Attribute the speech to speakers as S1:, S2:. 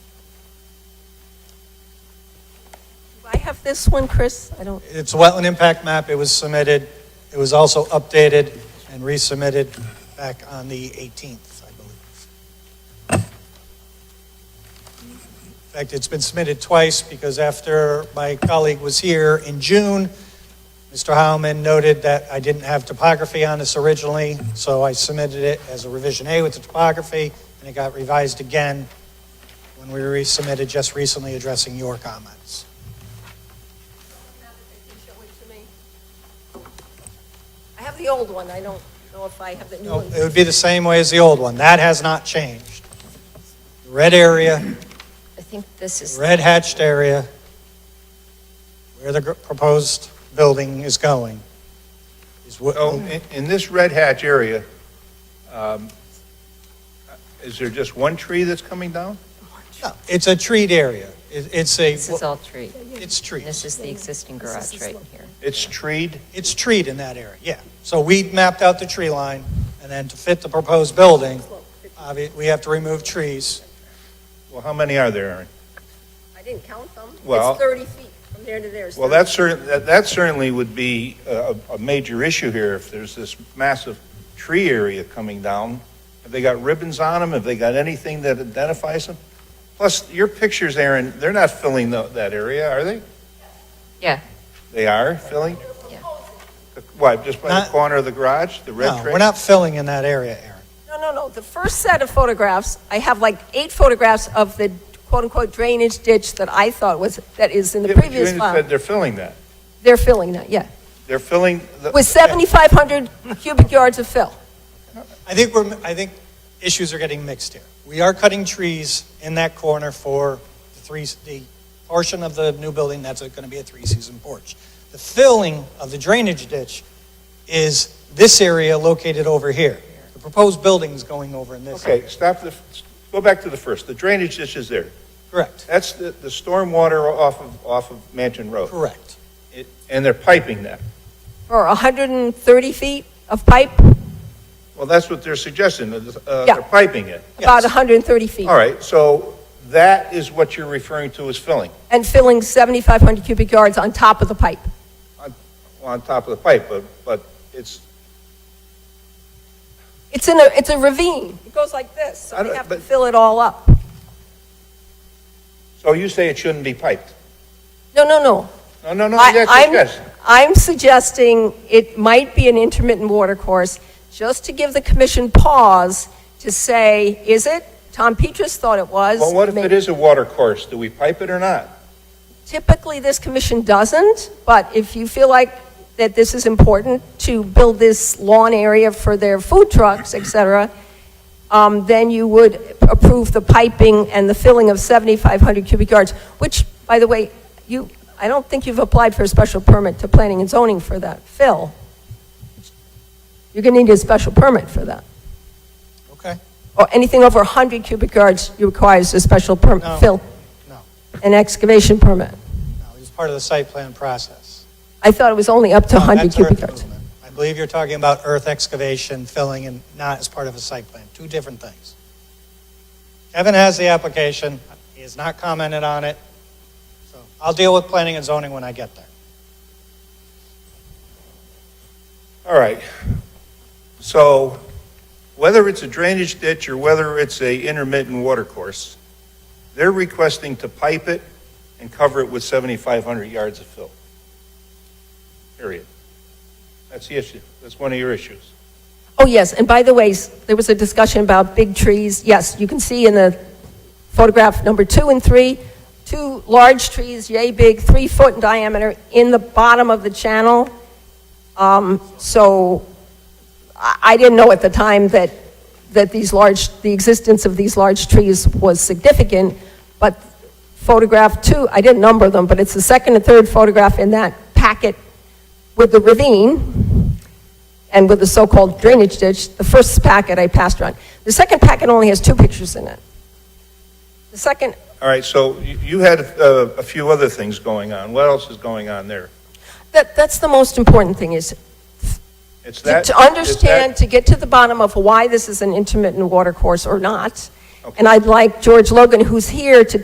S1: I have this one, Chris. I don't,
S2: It's a wetland impact map. It was submitted. It was also updated and resubmitted back on the 18th, I believe. In fact, it's been submitted twice because after my colleague was here in June, Mr. Howman noted that I didn't have topography on this originally, so I submitted it as a revision A with the topography, and it got revised again when we resubmitted just recently addressing your comments.
S1: show it to me. I have the old one. I don't know if I have the new
S2: No,
S1: one.
S2: it would be the same way as the old one. That has not changed. Red area,
S3: I think this is,
S2: red hatched area, where the gr- proposed building is going. is what-
S4: So in- in this Red Hatch area, um, is there just one tree that's coming down?
S2: No, It's a treat area. It- It's a,
S3: this is all tree.
S2: it's trees.
S3: This is the existing garage right here.
S4: It's treed?
S2: It's treat in that area, yeah. So we mapped out the tree line, and then to fit the proposed building, obvi- we have to remove trees.
S4: Well, how many are there, Aaron?
S1: I didn't count them.
S4: Well-
S1: It's 30 feet from there to there. It's
S4: Well,
S1: 30.
S4: that certainly, that certainly would be a, a major issue here if there's this massive tree area coming down. Have they got ribbons on them? Have they got anything that identifies them? Plus, your pictures, Aaron, they're not filling tho- that area, are they?
S3: Yeah.
S4: They are filling?
S3: Yeah.
S4: What, just by the
S2: Not-
S4: corner of the garage, the red
S2: No,
S4: tree?
S2: we're not filling in that area, Aaron.
S1: No, no, no. The first set of photographs, I have like eight photographs of the quote-unquote drainage ditch that I thought was, that is in the
S4: Yeah, but you
S1: previous
S4: said
S1: file.
S4: They're filling that.
S1: They're filling that, yeah.
S4: They're filling. the-
S1: With 7,500 cubic yards of fill.
S2: I think we're, I think issues are getting mixed here. We are cutting trees in that corner for the three, the portion of the new building that's going to be a three-season porch. The filling of the drainage ditch is this area located over here. The proposed building's going over in this.
S4: Okay, stop the, go back to the first. The drainage ditch is there.
S2: Correct,
S4: That's the, the stormwater off of, off of Mansion Road.
S2: correct.
S4: It- And they're piping that.
S1: Or 130 feet of pipe,
S4: Well, that's what they're suggesting, that, uh,
S1: Yeah.
S4: they're piping it.
S1: about
S2: Yes.
S1: 130 feet.
S4: All right, so that is what you're referring to as filling,
S1: And filling 7,500 cubic yards on top of the pipe.
S4: on top of the pipe, but, but it's,
S1: It's in a, it's a ravine. It goes like this,
S4: I
S1: so
S4: don't-
S1: they have to
S4: but-
S1: fill it all up.
S4: so you say it shouldn't be piped?
S1: No, no, no.
S4: No, no, no,
S1: I-
S4: that's,
S1: I'm-
S4: yes.
S1: I'm suggesting it might be an intermittent water course, just to give the commission pause to say, is it? Tom Petrus thought it was.
S4: Well, what if it
S1: Maybe-
S4: is a water course? Do we pipe it or not?
S1: Typically, this commission doesn't, but if you feel like that this is important to build this lawn area for their food trucks, et cetera, um, then you would approve the piping and the filling of 7,500 cubic yards, which, by the way, you, I don't think you've applied for a special permit to planning and zoning for that fill. You're going to need a special permit for that.
S2: Okay.
S1: Or anything over 100 cubic yards requires a special
S2: No.
S1: permit, fill.
S2: No.
S1: An excavation permit.
S2: No, it's part of the site plan process.
S1: I thought it was only up to
S2: No,
S1: 100
S2: Oh, that's earth
S1: cubic yards.
S2: movement. I believe you're talking about earth excavation, filling, and not as part of a site plan, two different things. Kevin has the application, he has not commented on it, so I'll deal with planning and zoning when I get there.
S4: All right. So whether it's a drainage ditch or whether it's a intermittent water course, they're requesting to pipe it and cover it with 7,500 yards of fill. Period. That's the issue. That's one of your issues.
S1: Oh, yes, and by the way, s- there was a discussion about big trees. Yes, you can see in the photograph number two and three, two large trees, yay big, three foot in diameter, in the bottom of the channel. Um, So I I didn't know at the time that, that these large, the existence of these large trees was significant, but photograph two, I didn't number them, but it's the second and third photograph in that packet with the ravine and with the so-called drainage ditch, the first packet I passed around. The second packet only has two pictures in it. The second,
S4: All right, so you you had uh, a few other things going on. What else is going on there?
S1: that, that's the most important thing, is
S4: It's
S1: to
S4: that.
S1: to
S4: it's
S1: understand,
S4: that-
S1: to get to the bottom of why this is an intermittent water course or not.
S4: Okay.
S1: And I'd like George Logan, who's here, to